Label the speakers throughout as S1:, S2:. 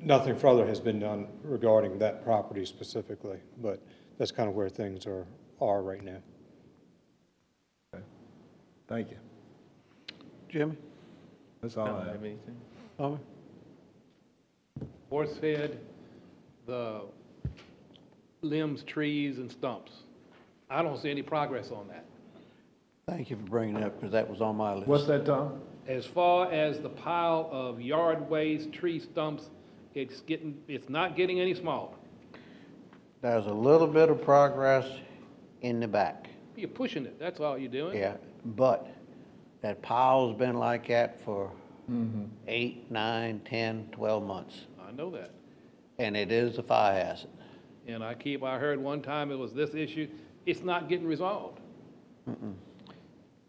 S1: nothing further has been done regarding that property specifically, but that's kind of where things are, are right now.
S2: Thank you.
S3: Jimmy?
S2: That's all I
S4: I
S2: have.
S4: have anything.
S3: Tommy?
S5: Horse head, the limbs, trees, and stumps. I don't see any progress on that.
S3: Thank you for bringing that up, because that was on my list.
S2: What's that, Tom?
S5: As far as the pile of yard waste, tree stumps, it's getting, it's not getting any smaller.
S3: There's a little bit of progress in the back,
S5: You're pushing it, that's all you're doing.
S3: yeah, but that pile's been like that for eight, nine, 10, 12 months,
S5: I know that.
S3: and it is a fire hazard.
S5: And I keep, I heard one time it was this issue, it's not getting resolved.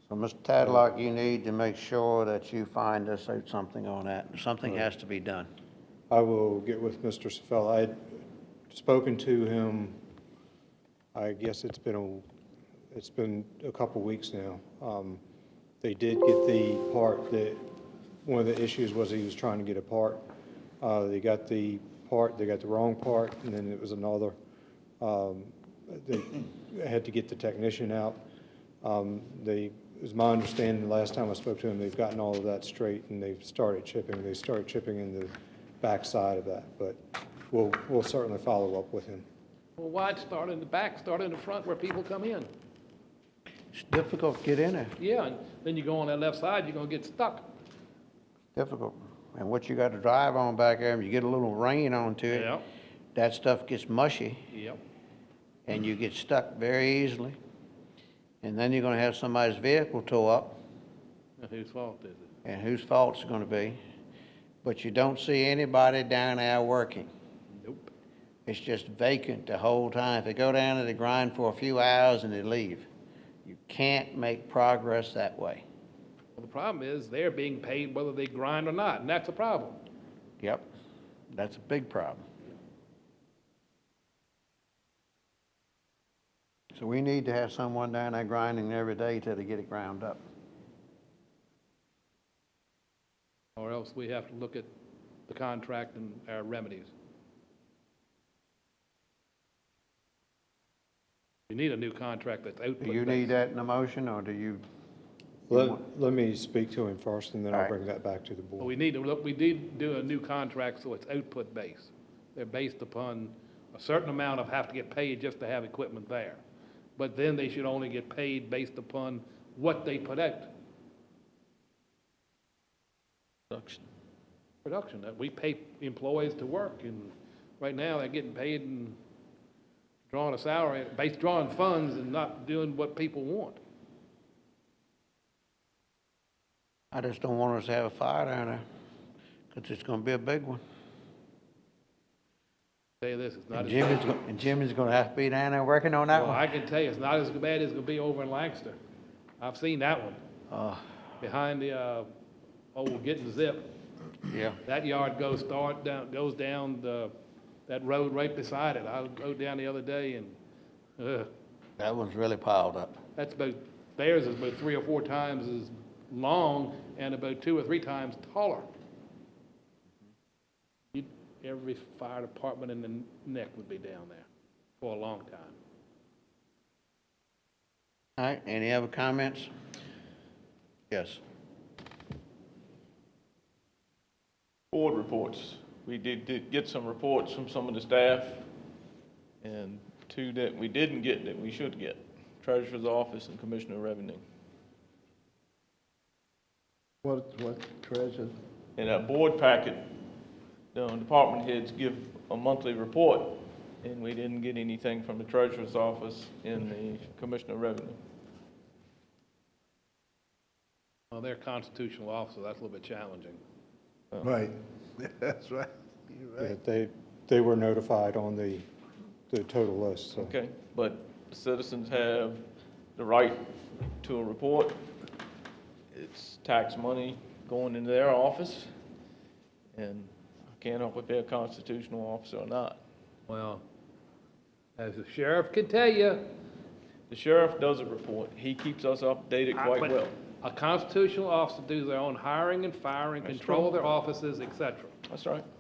S3: So, Mr. Tadlock, you need to make sure that you find us out something on that. Something has to be done.
S1: I will get with Mr. Sefela. I had spoken to him, I guess it's been a, it's been a couple weeks now. Um, They did get the part that, one of the issues was he was trying to get a part. Uh, They got the part, they got the wrong part, and then it was another. Um, They had to get the technician out. Um, They, it was my understanding, the last time I spoke to them, they've gotten all of that straight and they've started chipping. They started chipping in the backside of that, but we'll, we'll certainly follow up with him.
S5: Well, why start in the back, start in the front where people come in?
S3: It's difficult to get in there,
S5: Yeah, and then you go on that left side, you're gonna get stuck.
S3: difficult. And what you got to drive on back there, and you get a little rain onto it.
S5: Yeah.
S3: That stuff gets mushy.
S5: Yep.
S3: and you get stuck very easily. And then you're gonna have somebody's vehicle tow up,
S5: Now, Whose fault is it?
S3: and whose fault's it gonna be? But you don't see anybody down there working.
S5: Nope.
S3: It's just vacant the whole time. They go down and they grind for a few hours and they leave. You can't make progress that way.
S5: Well, the problem is they're being paid whether they grind or not, and that's a problem.
S3: Yep, that's a big problem. So we need to have someone down there grinding every day till they get it ground up.
S5: Or else we have to look at the contract and our remedies. We need a new contract that's
S3: Do you
S5: output
S3: need
S5: based.
S3: that in the motion, or do you?
S1: Let, let me speak to him first and then
S3: All
S1: I'll
S3: right.
S1: bring that back to the board.
S5: We need to look, we did do a new contract, so it's output based. They're based upon a certain amount of have to get paid just to have equipment there. But then they should only get paid based upon what they put out.
S4: Production.
S5: production, that we pay employees to work, and right now, they're getting paid and drawing a salary, based drawing funds and not doing what people want.
S3: I just don't want us to have a fire down there, because it's gonna be a big one.
S5: Tell you this, it's not
S3: And
S5: as,
S3: Jimmy's, go- and Jimmy's gonna have to be down there working on that
S5: well,
S3: one.
S5: I can tell you, it's not as bad as it'll be over in Lancaster. I've seen that one,
S3: Uh,
S5: behind the, uh, old Getting Zip.
S3: yeah,
S5: That yard goes start down, goes down the, that road right beside it. I rode down the other day and, uh,
S3: that one's really piled up.
S5: that's about, theirs is about three or four times as long and about two or three times taller. You- Every fire department in the neck would be down there for a long time.
S3: All right, any other comments? Yes.
S4: Board reports. We did, did get some reports from some of the staff, and two that we didn't get that we should get. Treasurer's Office and Commissioner of Revenue.
S2: What, what treasure?
S4: In a board packet, the department heads give a monthly report, and we didn't get anything from the Treasurer's Office and the Commissioner of Revenue.
S5: Well, they're constitutional officers, that's a little bit challenging.
S2: Right, that's right. You're right.
S1: Yeah, They, they were notified on the, the total list, so.
S4: Okay, but citizens have the right to a report. It's tax money going into their office, and I can't help if they're a constitutional officer or not.
S5: Well, as the sheriff can tell you.
S4: The sheriff does a report. He keeps us updated quite
S5: but
S4: well.
S5: A constitutional officer do their own hiring and firing,
S4: That's
S5: control
S4: true.
S5: their offices, et cetera.
S4: That's right.